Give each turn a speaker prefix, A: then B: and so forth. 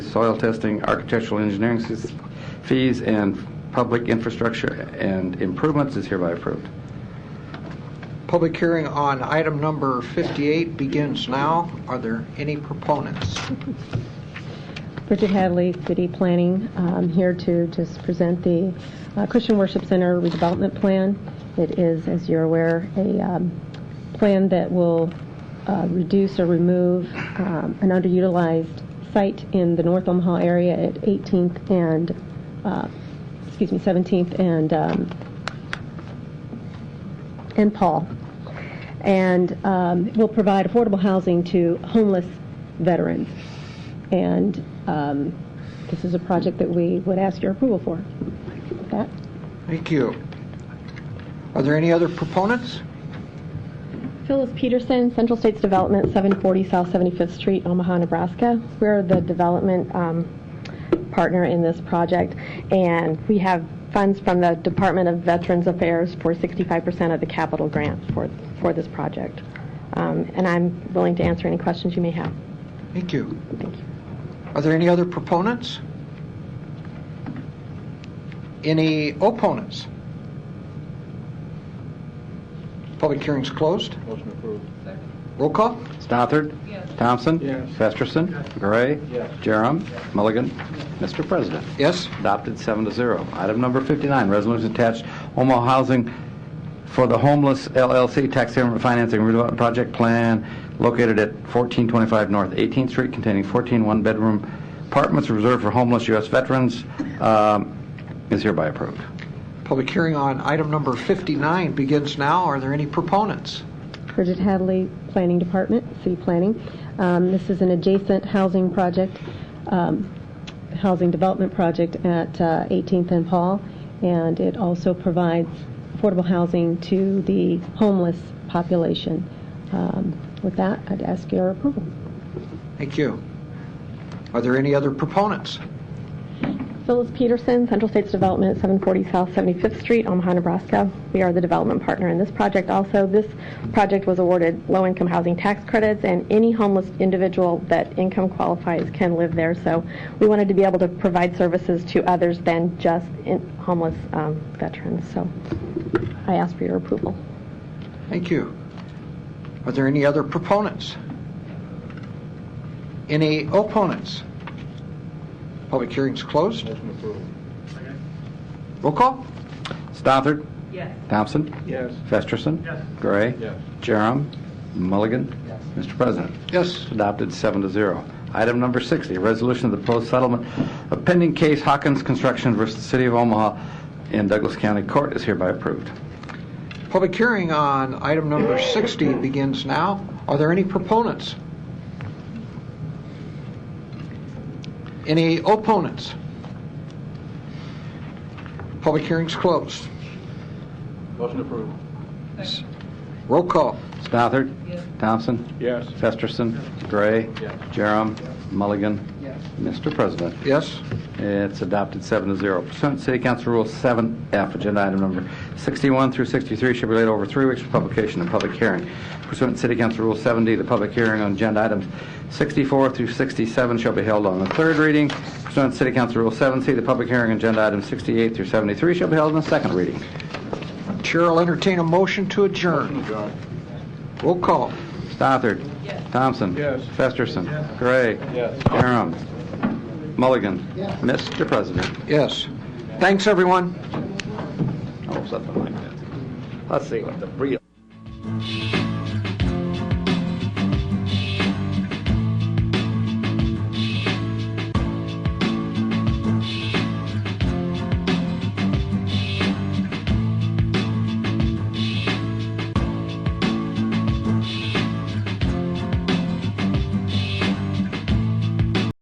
A: soil testing, architectural engineering s- fees, and public infrastructure and improvements is hereby approved.
B: Public hearing on item number 58 begins now. Are there any proponents?
C: Bridget Hadley, City Planning, um, here to just present the uh, Christian Worship Center redevelopment plan. It is, as you're aware, a um, plan that will uh, reduce or remove um, an underutilized site in the North Omaha area at 18th and, uh, excuse me, 17th and um, and Paul, and um, will provide affordable housing to homeless veterans. And um, this is a project that we would ask your approval for. With that,
B: Thank you. Are there any other proponents?
C: Phyllis Peterson, Central States Development, 740 South 75th Street, Omaha, Nebraska. We're the development um, partner in this project, and we have funds from the Department of Veterans Affairs for 65% of the capital grant for, for this project. Um, And I'm willing to answer any questions you may have.
B: Thank you. Are there any other proponents? Any opponents? Public hearing's closed.
D: Motion approved.
B: Roll call?
A: Stothard? Thompson?
D: Yes.
A: Festerson? Gray?
D: Yes.
A: Jerem? Mulligan? Mr. President.
B: Yes?
A: Adopted seven to zero. Item number 59, resolution attached Omaha Housing for the Homeless LLC Tax Increment Financing Redevelopment Project Plan located at 1425 North 18th Street containing 14 one-bedroom apartments reserved for homeless U.S. veterans um, is hereby approved.
B: Public hearing on item number 59 begins now. Are there any proponents?
C: Bridget Hadley, Planning Department, City Planning. Um, This is an adjacent housing project, um, housing development project at uh, 18th and Paul, and it also provides affordable housing to the homeless population. Um, With that, I'd ask your approval.
B: Thank you. Are there any other proponents?
C: Phyllis Peterson, Central States Development, 740 South 75th Street, Omaha, Nebraska. We are the development partner in this project also. This project was awarded low-income housing tax credits, and any homeless individual that income qualifies can live there. So we wanted to be able to provide services to others than just in- homeless um, veterans. So I ask for your approval.
B: Thank you. Are there any other proponents? Any opponents? Public hearing's closed.
D: Motion approved.
B: Roll call?
A: Stothard? Yes. Thompson?
D: Yes.
A: Festerson? Yes. Gray?
D: Yes.
A: Jerem? Mulligan? Yes. Mr. President.
B: Yes.
A: Adopted seven to zero. Item number 60, resolution of the proposed settlement of pending case Hawkins Construction versus the City of Omaha in Douglas County Court is hereby approved.
B: Public hearing on item number 60 begins now. Are there any proponents? Any opponents? Public hearing's closed.
D: Motion approved.
B: Roll call.
A: Stothard? Thompson?
D: Yes.
A: Festerson? Gray?
D: Yes.
A: Jerem? Mulligan? Mr. President.
B: Yes?
A: It's adopted seven to zero. Pursuant to City Council Rule 7F, agenda item number 61 through 63 should be laid over three weeks for publication and public hearing. Pursuant to City Council Rule 7D, the public hearing on agenda items 64 through 67 shall be held on the third reading. Pursuant to City Council Rule 7C, the public hearing on agenda items 68 through 73 shall be held on the second reading.
B: Chair will entertain a motion to
D: Motion
B: adjourn.
D: adjourned.
B: Roll call.
A: Stothard? Thompson?
D: Yes.
A: Festerson? Gray?
D: Yes.
A: Aram? Mulligan? Mr. President.
B: Yes. Thanks, everyone.
A: Oh, something like that. Let's see what the real